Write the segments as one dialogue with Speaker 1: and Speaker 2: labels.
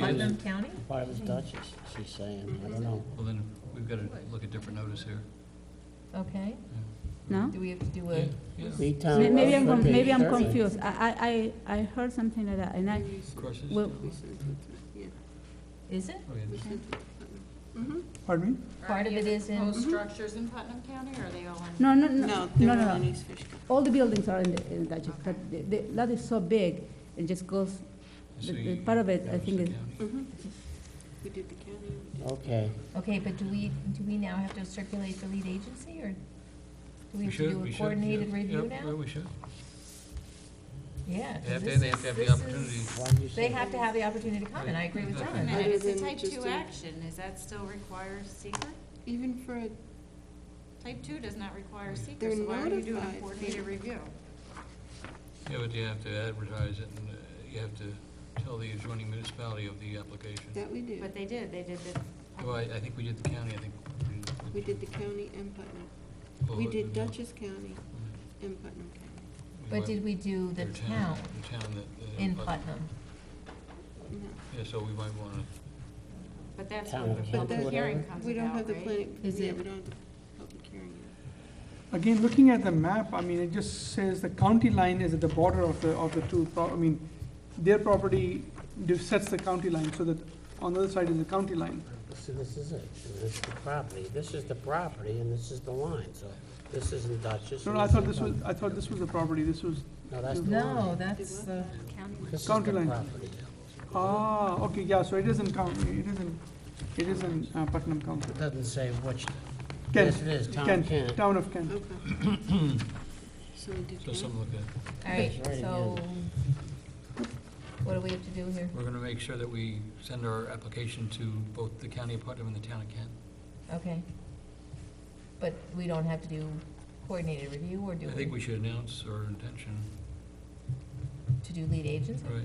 Speaker 1: Putnam County?
Speaker 2: Part of Dutchess, she's saying, I don't know.
Speaker 3: Well, then, we've got to look at different notice here.
Speaker 1: Okay.
Speaker 4: No?
Speaker 1: Do we have to do
Speaker 3: Yeah,
Speaker 1: a,
Speaker 3: yeah.
Speaker 2: B-Town.
Speaker 4: May- Maybe I'm,
Speaker 2: Road,
Speaker 4: con- maybe I'm
Speaker 2: Uh, page 30.
Speaker 4: confused. I, I, I I heard something like that, and I,
Speaker 3: Crosses?
Speaker 4: well,
Speaker 1: is it?
Speaker 3: Oh, yeah.
Speaker 5: Pardon me?
Speaker 1: Part of it is in- mm-hmm.
Speaker 6: Those structures in Putnam County, or are they all in?
Speaker 4: no, no, no,
Speaker 7: No,
Speaker 4: no,
Speaker 7: they're
Speaker 4: no,
Speaker 7: all in
Speaker 4: no.
Speaker 7: East Fishkill.
Speaker 4: All the buildings are in the, in Dutchess, but the, the lot is so big, it just goes,
Speaker 3: So
Speaker 4: the-
Speaker 3: you-
Speaker 4: the part of it, I
Speaker 3: Notice
Speaker 4: think,
Speaker 3: the
Speaker 4: is,
Speaker 3: county.
Speaker 7: We did the county, we did-
Speaker 2: Okay,
Speaker 1: Okay, but do we, do we now have to circulate the lead agency, or do we
Speaker 3: We
Speaker 1: have to
Speaker 3: should,
Speaker 1: do
Speaker 3: we
Speaker 1: a
Speaker 3: should.
Speaker 1: coordinated
Speaker 3: yeah.
Speaker 1: review
Speaker 3: Yep, yeah,
Speaker 1: now?
Speaker 3: we should.
Speaker 1: Yeah. 'cause
Speaker 3: They have to,
Speaker 1: this
Speaker 3: they have
Speaker 1: is-
Speaker 3: to have the
Speaker 1: this is-
Speaker 3: opportunity.
Speaker 2: why do you
Speaker 1: They
Speaker 2: say?
Speaker 1: have to have the opportunity to comment, I agree with
Speaker 3: Exactly.
Speaker 1: John.
Speaker 7: Yeah.
Speaker 6: And it's a
Speaker 7: Other than
Speaker 6: type
Speaker 7: just
Speaker 6: two
Speaker 7: a-
Speaker 6: action, is that still require secret?
Speaker 7: even for a,
Speaker 6: Type two does not require secret,
Speaker 7: They're
Speaker 6: so why are you doing a
Speaker 7: notified.
Speaker 6: coordinated review?
Speaker 3: Yeah, but you have to advertise it, and uh, you have to tell the adjoining municipality of the application.
Speaker 7: that we did.
Speaker 6: But they did, they did the.
Speaker 3: Well, I, I think we did the county, I think.
Speaker 7: We did the county and Putnam.
Speaker 3: well, uh,
Speaker 7: We
Speaker 3: it-
Speaker 7: did
Speaker 3: yeah,
Speaker 7: Dutchess County
Speaker 3: we
Speaker 7: and Putnam County.
Speaker 1: But
Speaker 3: went
Speaker 1: did we do the
Speaker 3: through
Speaker 1: town
Speaker 3: The town that. uh,
Speaker 1: in
Speaker 3: but-
Speaker 1: Putnam?
Speaker 7: No,
Speaker 3: Yeah, so we might want to,
Speaker 6: But that's
Speaker 2: Town
Speaker 6: when the
Speaker 2: council,
Speaker 6: public hearing
Speaker 2: whatever.
Speaker 6: comes
Speaker 7: we don't have
Speaker 6: about,
Speaker 7: the
Speaker 6: right?
Speaker 7: planning,
Speaker 1: Is
Speaker 7: yeah,
Speaker 1: it-
Speaker 7: we don't have the public hearing.
Speaker 5: Again, looking at the map, I mean, it just says the county line is at the border of the, of the two, pro- I mean, their property dif- sets the county line, so that on the other side is the county line.
Speaker 2: See, this is it, this is the property, this is the property and this is the line, so this isn't Dutchess.
Speaker 5: No,
Speaker 2: and
Speaker 5: no, I
Speaker 2: this
Speaker 5: thought
Speaker 2: isn't
Speaker 5: this was,
Speaker 2: Dutchess.
Speaker 5: I thought this was the property, this was,
Speaker 2: No, that's the
Speaker 1: No,
Speaker 2: line.
Speaker 1: that's uh, the,
Speaker 2: This is the
Speaker 5: county line.
Speaker 2: property.
Speaker 5: ah, okay, yeah, so it isn't county, it isn't, it isn't uh, Putnam County.
Speaker 2: It doesn't say which,
Speaker 5: Kent,
Speaker 2: yes, it is, town
Speaker 5: Kent,
Speaker 2: Kent.
Speaker 5: Town of Kent.
Speaker 7: Okay. So we did
Speaker 3: so
Speaker 7: county.
Speaker 3: something look at.
Speaker 1: all right,
Speaker 2: That's right,
Speaker 1: so what do we have to do here?
Speaker 3: We're going to make sure that we send our application to both the county of Putnam and the town of Kent.
Speaker 1: Okay. But we don't have to do coordinated review, or do
Speaker 3: I think
Speaker 1: we,
Speaker 3: we should announce our intention,
Speaker 1: to do lead agency?
Speaker 3: right?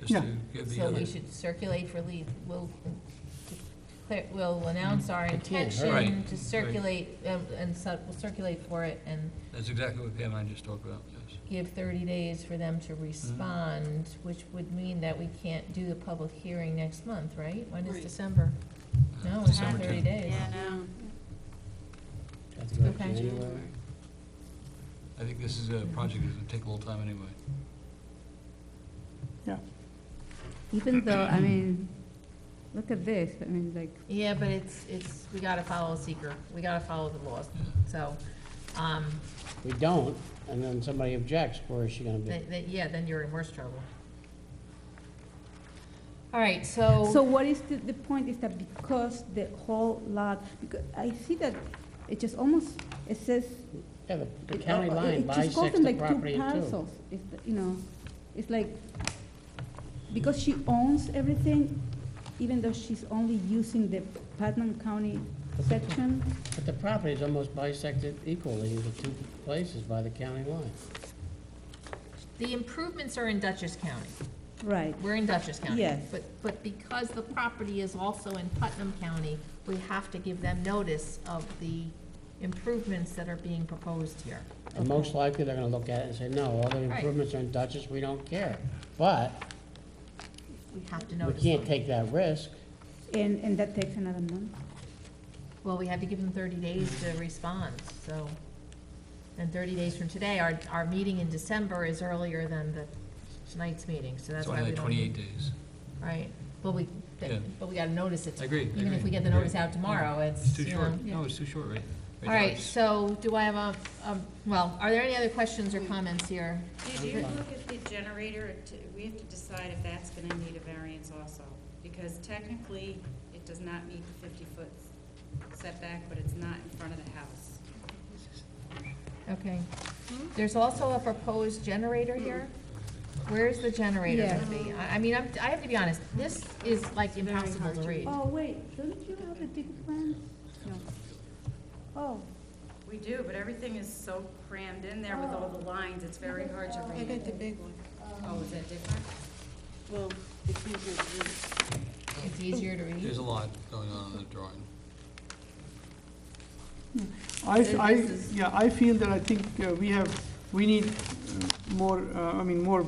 Speaker 3: Just
Speaker 5: Yeah.
Speaker 3: to give the
Speaker 1: So we
Speaker 3: other,
Speaker 1: should circulate for lead, we'll, declare- we'll announce our
Speaker 2: can't hurt.
Speaker 3: Right,
Speaker 1: intention to
Speaker 3: right.
Speaker 1: circulate, um, and so, we'll circulate for it and
Speaker 3: that's exactly what Pam and I just talked about, yes.
Speaker 1: give thirty days for them
Speaker 3: Mm-hmm.
Speaker 1: to respond, which would mean that we can't do the public hearing next month, right? When is
Speaker 7: Right.
Speaker 1: December? No, it's not
Speaker 3: Uh, December
Speaker 1: thirty
Speaker 3: 10th.
Speaker 1: days.
Speaker 6: Yeah, no.
Speaker 7: No,
Speaker 2: That's about
Speaker 1: Okay.
Speaker 2: January.
Speaker 3: I think this is a project that's going to take a little time anyway.
Speaker 4: even though, I mean, look at this, I mean, like,
Speaker 1: Yeah, but it's, it's, we gotta follow seeker, we gotta follow the laws, so, um,
Speaker 2: We don't, and then somebody objects, where is she gonna be?
Speaker 1: th th yeah, then you're in worse trouble. All right, so.
Speaker 4: so what is the, the point is that because the whole lot, because I see that it just almost, it says
Speaker 2: Yeah, the- the
Speaker 4: It-
Speaker 2: county
Speaker 4: uh, uh,
Speaker 2: line
Speaker 4: it just goes
Speaker 2: bisects
Speaker 4: in
Speaker 2: the
Speaker 4: like two
Speaker 2: property in two.
Speaker 4: parcels. It's, the- you know, it's like, because she owns everything, even though she's only using the Putnam County section,
Speaker 2: But the property is almost bisected equally into two places by the county line.
Speaker 1: The improvements are in Dutchess County.
Speaker 4: right,
Speaker 1: We're in Dutchess County.
Speaker 4: Yes.
Speaker 1: But, but because the property is also in Putnam County, we have to give them notice of the improvements that are being proposed here.
Speaker 2: And most likely, they're gonna look at it and say, no, all the improvements are in Dutchess, we don't care. But
Speaker 1: We have to
Speaker 2: we
Speaker 1: notice
Speaker 2: can't
Speaker 1: them.
Speaker 2: take that risk.
Speaker 4: and, and that takes another month.
Speaker 1: Well, we have to give them thirty days to respond, so. And thirty days from today, our, our meeting in December is earlier than the tonight's meeting, so that's
Speaker 3: It's
Speaker 1: why
Speaker 3: only
Speaker 1: we
Speaker 3: like
Speaker 1: don't.
Speaker 3: twenty-eight days.
Speaker 1: Right, but we,
Speaker 3: Yeah.
Speaker 1: but we gotta notice it.
Speaker 3: I agree, I
Speaker 1: Even if
Speaker 3: agree,
Speaker 1: we get the
Speaker 3: I agree.
Speaker 1: notice out tomorrow, it's,
Speaker 3: It's too
Speaker 1: you know.
Speaker 3: short. No, it's too short, right?
Speaker 1: All right, so do I have a, a- well, are there any other questions or comments here?
Speaker 6: Did you look at the generator, T- we have to decide if that's gonna need a variance also, because technically, it does not meet the fifty-foot setback, but it's not in front of the house.
Speaker 1: Okay. There's also a proposed generator here. Where is the generator
Speaker 4: Yeah.
Speaker 1: gonna be? I, I mean, I'm, I have to be honest, this is like impossible to read.
Speaker 4: Oh, wait, don't you have the big plan? No. Oh,
Speaker 6: We do, but everything is so crammed in there with all the lines, it's very hard to
Speaker 7: I got the
Speaker 6: read.
Speaker 7: big one.
Speaker 6: Oh, is that different?
Speaker 7: Well, it's easier to read.
Speaker 1: It's easier to read.
Speaker 3: There's a lot going on in the drawing.
Speaker 5: I,
Speaker 6: So
Speaker 5: I,
Speaker 6: this is-
Speaker 5: yeah, I feel that I think uh, we have, we need uh, more, uh, I mean, more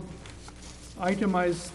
Speaker 5: itemized